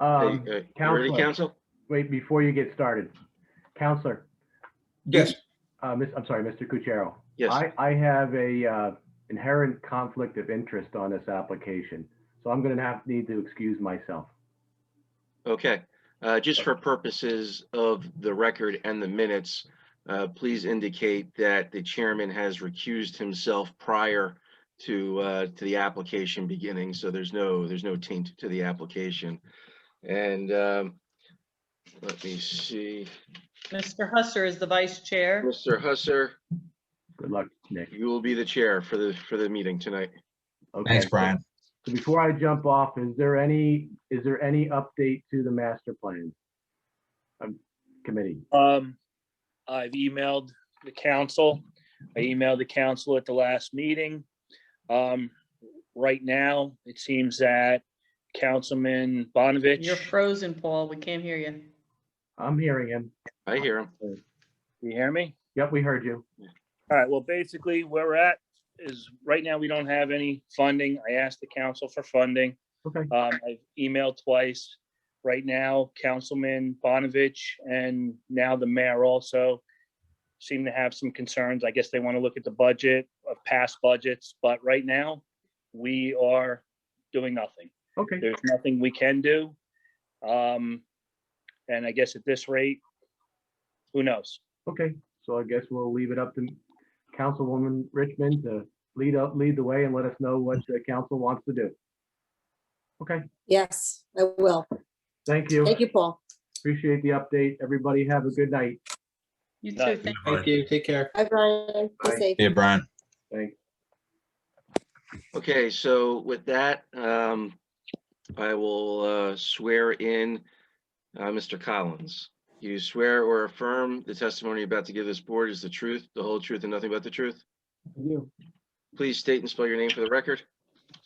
Um, Hey, hey, you Ready, Counselor. Council? wait, before you get started, Counselor, Yes, uh, Miss, I'm sorry, Mr. Cuchero. Yes, I, I have a, uh, inherent conflict of interest on this application, so I'm gonna have, need to excuse myself. okay. Uh, Just for purposes of the record and the minutes, uh, please indicate that the chairman has recused himself prior to, uh, to the application beginning, so there's no, there's no taint to the application. And um, let me see, Mr. Husser is the vice chair. Mr. Husser, Good luck, Nick. you will be the chair for the, for the meeting tonight. Okay, thanks, Brian. So before I jump off, is there any, is there any update to the master plan? Um, committee, Um, I've emailed the council. I emailed the council at the last meeting. Um, right now, it seems that Councilman Bonovich, You're frozen, Paul. We can't hear you. I'm hearing him. I hear him. you hear me? Yep, we heard you. All right, well, basically where we're at is right now we don't have any funding. I asked the council for funding. Okay. Um, I've emailed twice. Right now, Councilman Bonovich and now the mayor also seem to have some concerns. I guess they want to look at the budget of past budgets, but right now we are doing nothing. Okay, There's nothing we can do. Um, and I guess at this rate, who knows? okay. So I guess we'll leave it up to Councilwoman Richmond to lead up, lead the way and let us know what the council wants to do. Okay, Yes, I will. thank you. Thank you, Paul. Appreciate the update. Everybody have a good night. You No. too. Thank- Thank you. Take care. Bye, Brian. Be Bye. safe. Yeah, Brian. Thanks. Okay, so with that, um, I will, uh, swear in, uh, Mr. Collins. You swear or affirm the testimony you're about to give this board is the truth, the whole truth and nothing but the truth? You, Please state and spell your name for the record.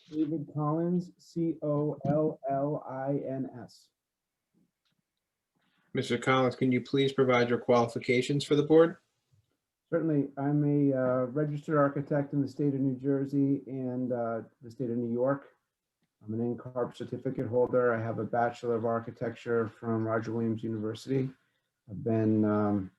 David Collins, C O L L I N S. Mr. Collins, can you please provide your qualifications for the board? Certainly, I'm a uh, registered architect in the state of New Jersey and uh, the state of New York. I'm an NCARB certificate holder. I have a Bachelor of Architecture from Roger Williams University. I've been um,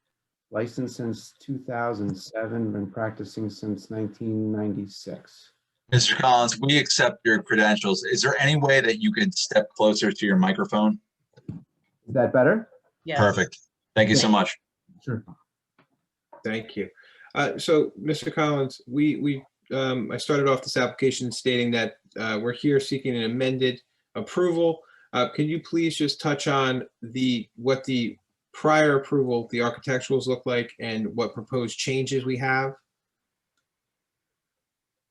licensed since 2007, been practicing since 1996. Mr. Collins, we accept your credentials. Is there any way that you could step closer to your microphone? Is that better? Yes. Perfect. Thank you so much. Sure. Thank you. Uh, So, Mr. Collins, we, we, um, I started off this application stating that uh, we're here seeking an amended approval. Uh, Can you please just touch on the, what the prior approval, the architecturals look like and what proposed changes we have?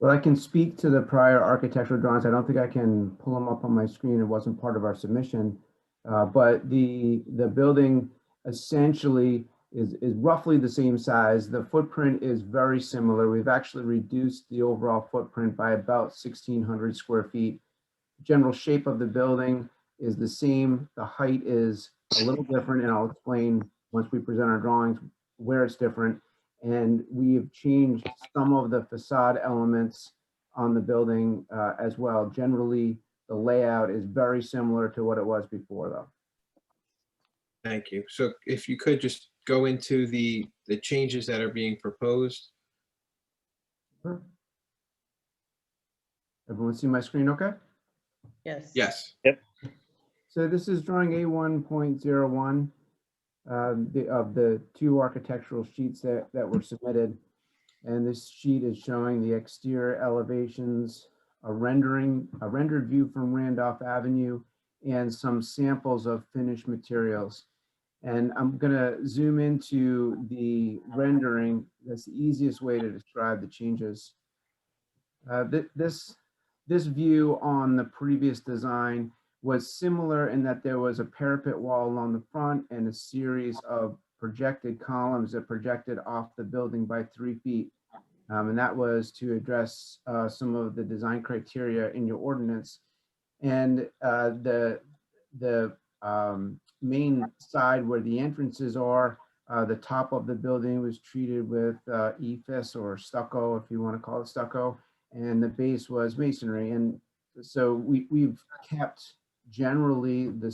Well, I can speak to the prior architectural drawings. I don't think I can pull them up on my screen. It wasn't part of our submission. Uh, But the, the building essentially is, is roughly the same size. The footprint is very similar. We've actually reduced the overall footprint by about 1,600 square feet. General shape of the building is the same. The height is a little different, and I'll explain once we present our drawings where it's different. And we have changed some of the facade elements on the building uh, as well. Generally, the layout is very similar to what it was before, though. Thank you. So if you could just go into the, the changes that are being proposed. Everyone see my screen okay? Yes. Yes. So this is drawing A1.01 um, the- of the two architectural sheets that, that were submitted. And this sheet is showing the exterior elevations, a rendering, a rendered view from Randolph Avenue, and some samples of finished materials. And I'm going to zoom into the rendering. That's the easiest way to describe the changes. Uh, thi- This, this view on the previous design was similar in that there was a parapet wall along the front and a series of projected columns that projected off the building by three feet. Um, and that was to address uh, some of the design criteria in your ordinance. And uh, the the um, main side where the entrances are, uh, the top of the building was treated with uh, ephes or stucco, if you want to call it stucco, and the base was masonry. And so we we've kept generally the